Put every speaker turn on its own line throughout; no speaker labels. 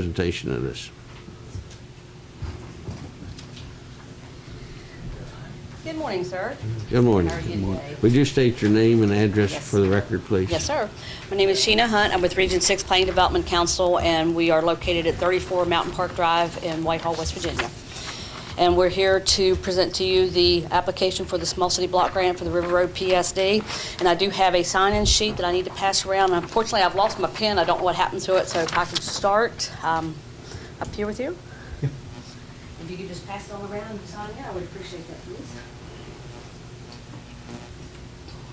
presentation of this.
Good morning, sir.
Good morning.
How are you today?
Would you state your name and address
Yes.
for the record, please?
Yes, sir. My name is Sheena Hunt. I'm with Region 6 Planning Development Council, and we are located at 34 Mountain Park Drive in Whitehall, West Virginia. And we're here to present to you the application for the Small City Block Grant for the River Road PSD. And I do have a sign-in sheet that I need to pass around. Unfortunately, I've lost my pen. I don't know what happened to it, so if I can start um, up here with you. If you could just pass it all around and sign it, I would appreciate that, please.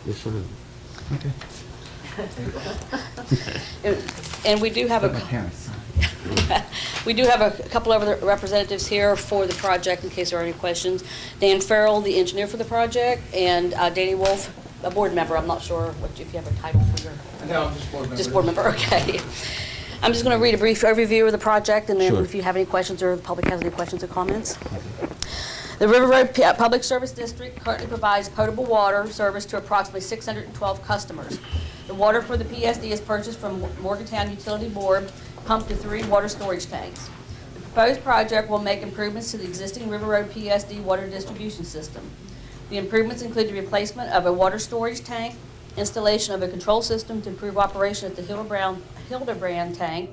Yes, ma'am.
And we do have a... We do have a couple of other representatives here for the project in case there are any questions. Dan Farrell, the engineer for the project, and uh, Danny Wolf, a board member. I'm not sure what, if you have a title for your...
No, I'm just board member.
Just board member, okay. I'm just going to read a brief overview of the project, and then
Sure.
if you have any questions or the public has any questions or comments. The River Road P- uh, Public Service District currently provides potable water service to approximately 612 customers. The water for the PSD is purchased from Morgantown Utility Board, pumped to three water storage tanks. The proposed project will make improvements to the existing River Road PSD water distribution system. The improvements include the replacement of a water storage tank, installation of a control system to improve operation at the Hildebrand, Hildebrand tank,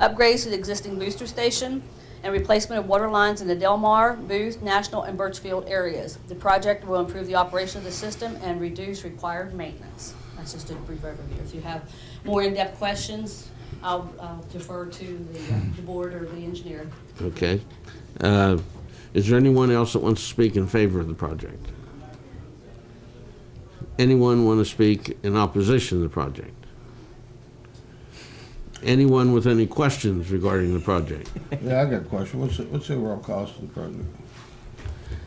upgrades to the existing booster station, and replacement of water lines in the Delmar, Booth, National, and Birchfield areas. The project will improve the operation of the system and reduce required maintenance. That's just a brief overview. If you have more in-depth questions, I'll I'll defer to the, uh, the board or the engineer.
Okay. Uh, Is there anyone else that wants to speak in favor of the project? Anyone want to speak in opposition to the project? Anyone with any questions regarding the project?
Yeah, I got a question. What's, the- what's the overall cost of the project?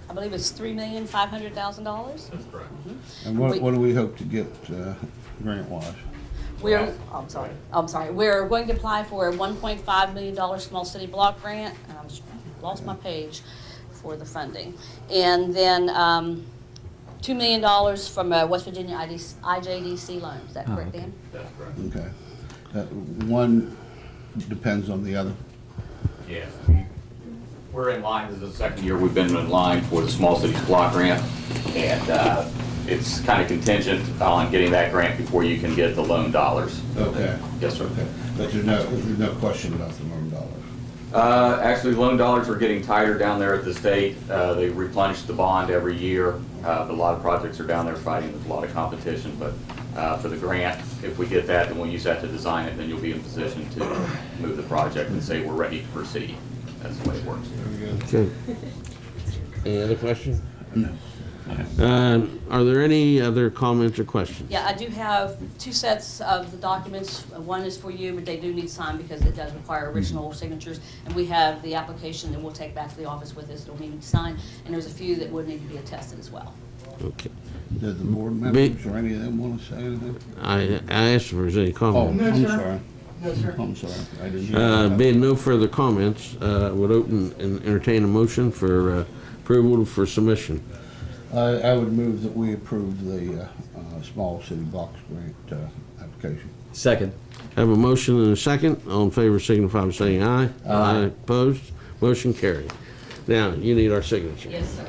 I believe it's three million, five hundred thousand dollars?
And what,
Wait.
what do we hope to get, uh, grant wise?
We're, oh, I'm sorry, I'm sorry, we're going to apply for a $1.5 million small city block grant, and I was- lost my page for the funding. And then um, $2 million from uh, West Virginia IDC IJDC loan, is that correct, Dan?
That's correct.
Okay. Uh, one depends on the other.
Yes. we- We're in line, this is the second year we've been in line for the Small Cities Block Grant, and uh, it's kind of contingent on getting that grant before you can get the loan dollars.
Okay.
Yes, sir.
But there's no, there's no question about the million dollars.
Uh, Actually, loan dollars are getting tighter down there at the state. Uh, They replenish the bond every year. Uh, but A lot of projects are down there fighting with a lot of competition, but uh, for the grant, if we get that, then we'll use that to design it, then you'll be in position to move the project and say, we're ready to proceed. That's the way it works.
Okay. Any other question?
No.
Um, Are there any other comments or questions?
Yeah, I do have two sets of the documents. Uh, One is for you, but they do need signed because it does require original signatures. And we have the application that we'll take back to the office with us, it'll need to sign. And there's a few that would need to be attested as well.
Okay.
Does the board members or any of them wanna say anything?
I I asked if there was any
Oh,
comment.
I'm sorry. No, sir. I'm sorry. I didn't. hear
Uh,
that.
Being no further comments, uh, would open and entertain a motion for uh, approval for submission.
I, I would move that we approve the, uh, uh, small city box grant, uh, application.
Second.
Have a motion and a second. All in favor signify by saying aye. Aye. Opposed? Motion carried. Now, you need our signature.
Yes, sir.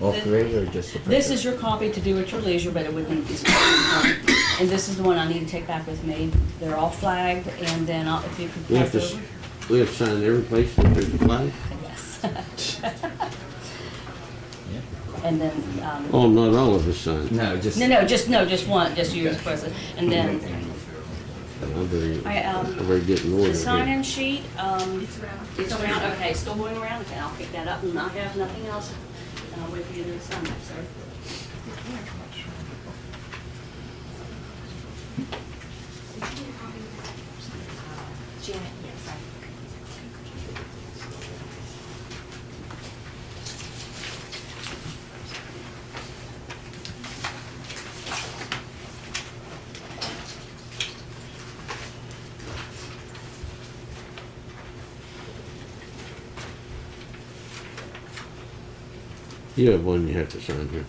All three or just the
This is your copy to do at your leisure, but it would need to be signed. And this is the one I need to take back with me. They're all flagged, and then I'll- if you could
We have
pass
to, s-
over.
we have to sign every place that there's a flag.
Yes. And then, um,
Oh, not all of us sign.
No, just.
no, no, just, no, just one, just you as president. And then
I'm very,
I, um,
I'm very getting order
the sign-in
here.
sheet, um, it's around, okay, still going around, okay, I'll pick that up, and I have nothing else. uh, And I'll wait for you to sign that, sir.
Janet, yes, I
You have one you have to sign here.